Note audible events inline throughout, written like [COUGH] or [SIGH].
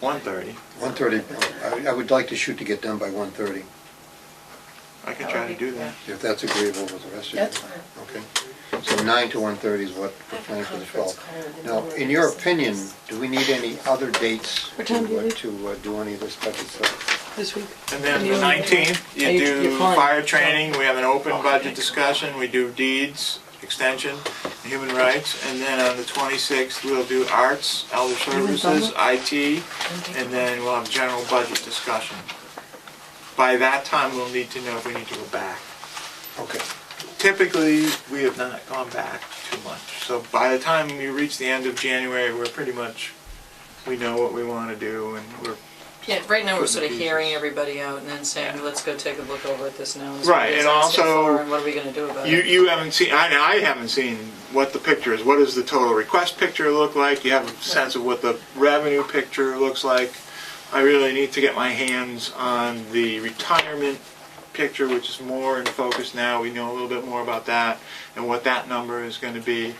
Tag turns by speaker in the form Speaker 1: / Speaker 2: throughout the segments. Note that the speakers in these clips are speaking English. Speaker 1: One thirty.
Speaker 2: One thirty, I, I would like to shoot to get done by one thirty,
Speaker 1: I could try to do that.
Speaker 2: if that's agreeable with the rest of you.
Speaker 3: That's fine.
Speaker 2: Okay, so nine to one thirty is what we're planning for the
Speaker 3: Conference
Speaker 2: twelfth.
Speaker 3: call in the
Speaker 2: Now,
Speaker 3: morning.
Speaker 2: in your opinion, do we need any other dates
Speaker 3: What time do
Speaker 2: to,
Speaker 3: you
Speaker 2: uh,
Speaker 3: leave?
Speaker 2: to uh, do any of this type of stuff?
Speaker 3: This week?
Speaker 1: And then
Speaker 3: You-
Speaker 1: the nineteenth,
Speaker 3: Are
Speaker 1: you
Speaker 3: you-
Speaker 1: do
Speaker 3: you're fine.
Speaker 1: fire training, we have an open budget discussion, we do deeds, extension, human rights, and then on the twenty-sixth, we'll do arts, elder
Speaker 3: in
Speaker 1: services, IT, and then we'll have general budget discussion. By that time, we'll need to know if we need to go back.
Speaker 2: Okay,
Speaker 1: Typically, we have not gone back too much, so by the time you reach the end of January, we're pretty much, we know what we want to do, and we're
Speaker 4: Yeah, right now we're sort of
Speaker 1: Putting the
Speaker 4: hearing
Speaker 1: pieces.
Speaker 4: everybody out and then saying,
Speaker 1: Yeah.
Speaker 4: let's go take a look over at this now. and
Speaker 1: Right,
Speaker 4: see
Speaker 1: and
Speaker 4: what it's asking
Speaker 1: also-
Speaker 4: for, And what are we gonna do about
Speaker 1: You,
Speaker 4: it?
Speaker 1: you haven't seen, I, I haven't seen what the picture is. What does the total request picture look like? You have a sense of what the revenue picture looks like. I really need to get my hands on the retirement picture, which is more in focus now. We know a little bit more about that and what that number is gonna be.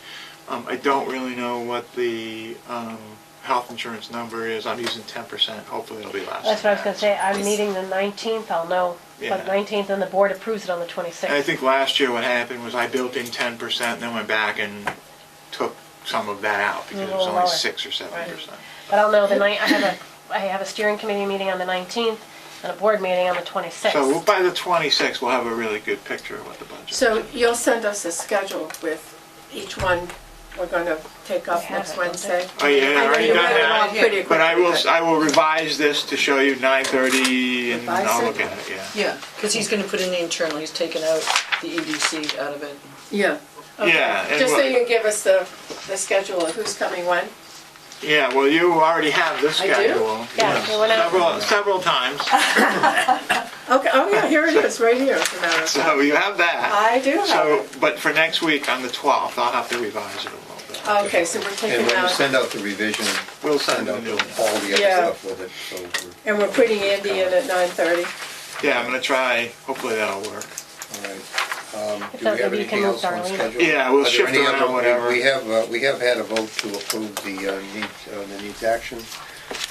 Speaker 1: Um, I don't really know what the, um, health insurance number is. I'm using ten percent. Hopefully it'll be less.
Speaker 5: That's what I was gonna say, I'm
Speaker 4: Yes.
Speaker 5: meeting the nineteenth, I'll know,
Speaker 1: Yeah.
Speaker 5: but nineteenth, and the board approves it on the
Speaker 1: And I
Speaker 5: twenty-sixth.
Speaker 1: think last year what happened was I built in ten percent, then went back and took some of that out because it
Speaker 3: Oh,
Speaker 1: was only
Speaker 5: Lower.
Speaker 1: six or seven percent.
Speaker 5: But I'll know the night, I have a, I have a steering committee meeting on the nineteenth, and a board meeting on the
Speaker 1: So we'll-
Speaker 5: twenty-sixth.
Speaker 1: by the twenty-sixth, we'll have a really good picture of what the budget.
Speaker 3: So you'll send us a schedule with each one we're gonna take
Speaker 5: We
Speaker 3: up
Speaker 5: have it,
Speaker 3: next
Speaker 5: don't we?
Speaker 3: Wednesday?
Speaker 1: Oh, yeah, I already
Speaker 3: You
Speaker 1: done
Speaker 3: got it all
Speaker 1: that.
Speaker 4: Yeah.
Speaker 3: pretty
Speaker 1: But I will,
Speaker 3: quick.
Speaker 1: I will revise this to show you nine thirty and
Speaker 3: Revise
Speaker 1: I'll
Speaker 3: it?
Speaker 1: look at it, yeah.
Speaker 4: Yeah, because he's gonna put in the internal, he's taken out the EDC out of it.
Speaker 3: Yeah. Okay.
Speaker 1: Yeah, and
Speaker 3: Just so
Speaker 1: we'll-
Speaker 3: you can give us the, the schedule of who's coming when?
Speaker 1: Yeah, well, you already have this
Speaker 3: I do?
Speaker 1: schedule.
Speaker 5: Yeah,
Speaker 1: Yes.
Speaker 5: well, when I-
Speaker 1: Several, several
Speaker 3: [LAUGHS]
Speaker 1: times,
Speaker 3: Okay, oh yeah, here it is, right here. as a matter of fact.
Speaker 1: so you have that.
Speaker 3: I do have
Speaker 1: So,
Speaker 3: it.
Speaker 1: but for next week on the twelfth, I'll have to revise it a little bit.
Speaker 3: Okay, so we're
Speaker 2: and
Speaker 3: taking
Speaker 2: when you
Speaker 3: out,
Speaker 2: send out the revision,
Speaker 1: We'll
Speaker 2: send
Speaker 1: send
Speaker 2: out
Speaker 1: a new one.
Speaker 2: all the other
Speaker 3: Yeah.
Speaker 2: stuff with it, so. we're-
Speaker 3: and we're putting Andy in at nine thirty.
Speaker 1: Yeah, I'm gonna try. Hopefully that'll work.
Speaker 2: All right. Um,
Speaker 5: If
Speaker 2: Do
Speaker 5: not,
Speaker 2: we have
Speaker 5: maybe
Speaker 2: anything
Speaker 5: you can move
Speaker 2: else on
Speaker 5: Darlene.
Speaker 2: schedule?
Speaker 1: Yeah, we'll
Speaker 2: Are there
Speaker 1: shift
Speaker 2: any
Speaker 1: around
Speaker 2: other- we-
Speaker 1: whatever.
Speaker 2: We have, uh, we have had a vote to approve the uh, needs, uh, the needs action.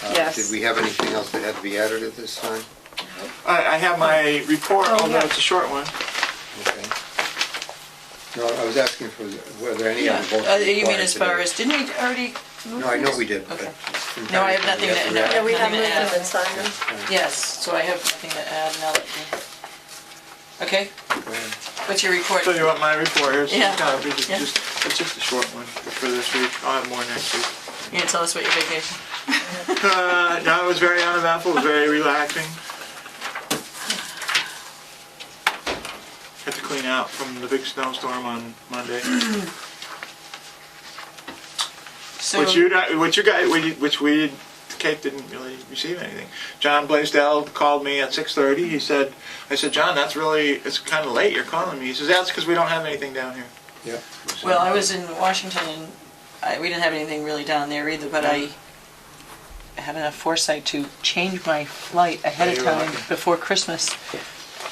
Speaker 2: Uh,
Speaker 3: Yes.
Speaker 2: Did we have anything else that had to be added at this time?
Speaker 1: I, I have my report,
Speaker 3: Oh,
Speaker 1: although
Speaker 3: yeah.
Speaker 1: it's a short one.
Speaker 2: Okay. No, I was asking for, were there any other votes
Speaker 4: Uh,
Speaker 2: required
Speaker 4: You mean as far
Speaker 2: today?
Speaker 4: as, didn't we already move
Speaker 2: No, I know
Speaker 4: these?
Speaker 2: we did, but.
Speaker 4: Okay. No, I have nothing to-
Speaker 2: We have
Speaker 3: Yeah,
Speaker 2: to
Speaker 3: we have
Speaker 4: Nothing to add.
Speaker 3: movement and Simon.
Speaker 4: Yes, so I have nothing to add now that you... Okay,
Speaker 2: react. Go ahead.
Speaker 4: what's your report?
Speaker 1: Tell you what, my report here's some
Speaker 4: Yeah.
Speaker 1: copy. It's
Speaker 4: Yeah.
Speaker 1: just, it's just a short one for this week. I'll have more next week.
Speaker 4: You gonna tell us about your vacation?
Speaker 1: Uh, no, it was very uneventful. It was very relaxing. Had to clean out from the big snowstorm on Monday,
Speaker 4: So,
Speaker 1: which you, di- which you guys, we- which we, Kate didn't really receive anything. John Blaisdell called me at 6:30. He said, I said, John, that's really, it's kind of late. You're calling me. He says, that's because we don't have anything down here.
Speaker 2: Yeah.
Speaker 4: well, I was in Washington and I, we didn't have anything really down there either, but I had enough foresight to change my flight ahead
Speaker 1: Yeah,
Speaker 4: of
Speaker 1: you're
Speaker 4: time
Speaker 1: lucky.
Speaker 4: before Christmas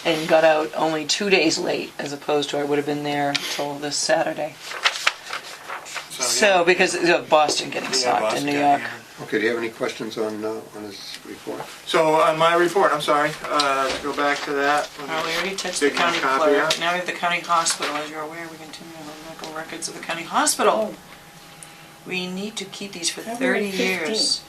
Speaker 4: and got out only two days late as opposed to I would have been there till this Saturday.
Speaker 1: yeah.
Speaker 4: So, because of Boston getting socked in New York.
Speaker 2: Okay, do you have any questions on, uh, on this report?
Speaker 1: So on my report, I'm sorry, uh, to go back to that. let me
Speaker 4: Well, we already touched the
Speaker 1: dig my
Speaker 4: county
Speaker 1: copy
Speaker 4: clerk.
Speaker 1: out.
Speaker 4: Now we have the county hospital. As you're aware, we continue the medical records of the county hospital. We need to keep these for
Speaker 3: February
Speaker 4: thirty years.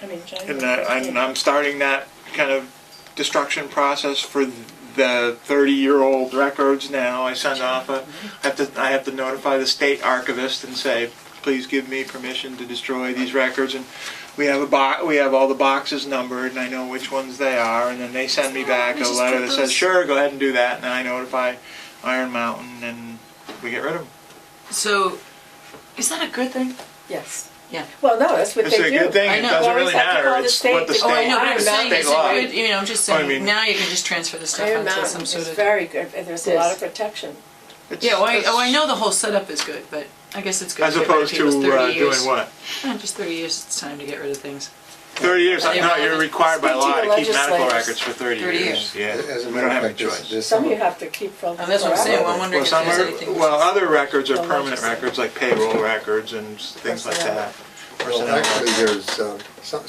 Speaker 3: I mean, January.
Speaker 1: And uh, I, and I'm starting that kind of destruction process for the thirty-year-old records now. I send off a, I have to, I have to notify the state archivist and say, please give me permission to destroy these records. And we have a bo, we have all the boxes numbered and I know which ones they are. And then they send me back
Speaker 4: We
Speaker 1: a
Speaker 4: just
Speaker 1: letter
Speaker 4: put
Speaker 1: that
Speaker 4: those-
Speaker 1: says, sure, go ahead and do that. And then I notify Iron Mountain and we get rid of them.
Speaker 4: So, is that a good thing?
Speaker 3: Yes.
Speaker 4: Yeah.
Speaker 3: Well, no, that's what
Speaker 1: It's
Speaker 3: they do.
Speaker 1: a good thing,
Speaker 4: I
Speaker 1: it
Speaker 4: know.
Speaker 1: doesn't
Speaker 3: Always
Speaker 1: really
Speaker 3: have to
Speaker 1: matter,
Speaker 3: call the
Speaker 1: it's what the
Speaker 3: state.
Speaker 1: state.
Speaker 4: Oh, I know, but I'm
Speaker 3: Iron
Speaker 4: saying,
Speaker 3: Mountain
Speaker 4: is
Speaker 1: state law.
Speaker 4: it good, you know, I'm just
Speaker 1: Well, I
Speaker 4: saying,
Speaker 1: mean-
Speaker 4: now you can just transfer the stuff
Speaker 3: Iron
Speaker 4: onto
Speaker 3: Mountain
Speaker 4: some
Speaker 3: is
Speaker 4: sort of.
Speaker 3: very good, and there's a lot of
Speaker 4: This.
Speaker 3: protection.
Speaker 1: It's-
Speaker 4: Yeah, well, I, oh, I
Speaker 1: it's-
Speaker 4: know the whole setup is good, but I guess it's good
Speaker 1: As
Speaker 4: to get rid
Speaker 1: opposed
Speaker 4: of
Speaker 1: to
Speaker 4: people's
Speaker 1: uh,
Speaker 4: thirty years.
Speaker 1: doing what?
Speaker 4: Eh, Just thirty years, it's time to get rid of things.
Speaker 1: Thirty years,
Speaker 4: Are they
Speaker 1: no, you're
Speaker 4: relevant?
Speaker 1: required by
Speaker 3: Speak to
Speaker 1: law
Speaker 3: the
Speaker 1: to keep medical
Speaker 3: legislators.
Speaker 1: records for thirty
Speaker 4: 30
Speaker 1: years.
Speaker 4: years.
Speaker 1: Yeah,
Speaker 2: As a
Speaker 1: we
Speaker 2: matter
Speaker 1: don't have
Speaker 2: of
Speaker 1: a
Speaker 2: fact, this,
Speaker 1: choice.
Speaker 2: this.
Speaker 3: Some you have to keep from.
Speaker 4: And Oh, that's what I'm saying, well, I'm
Speaker 2: Well,
Speaker 4: wondering
Speaker 1: Well,
Speaker 4: if
Speaker 1: some
Speaker 4: there's
Speaker 1: are,
Speaker 4: anything.
Speaker 1: well, other records are
Speaker 3: The
Speaker 1: permanent
Speaker 3: legislature.
Speaker 1: records, like payroll records and s- things like
Speaker 3: Personnel.
Speaker 1: that.
Speaker 2: Well,
Speaker 1: Personnel.
Speaker 2: actually, there's, uh, some,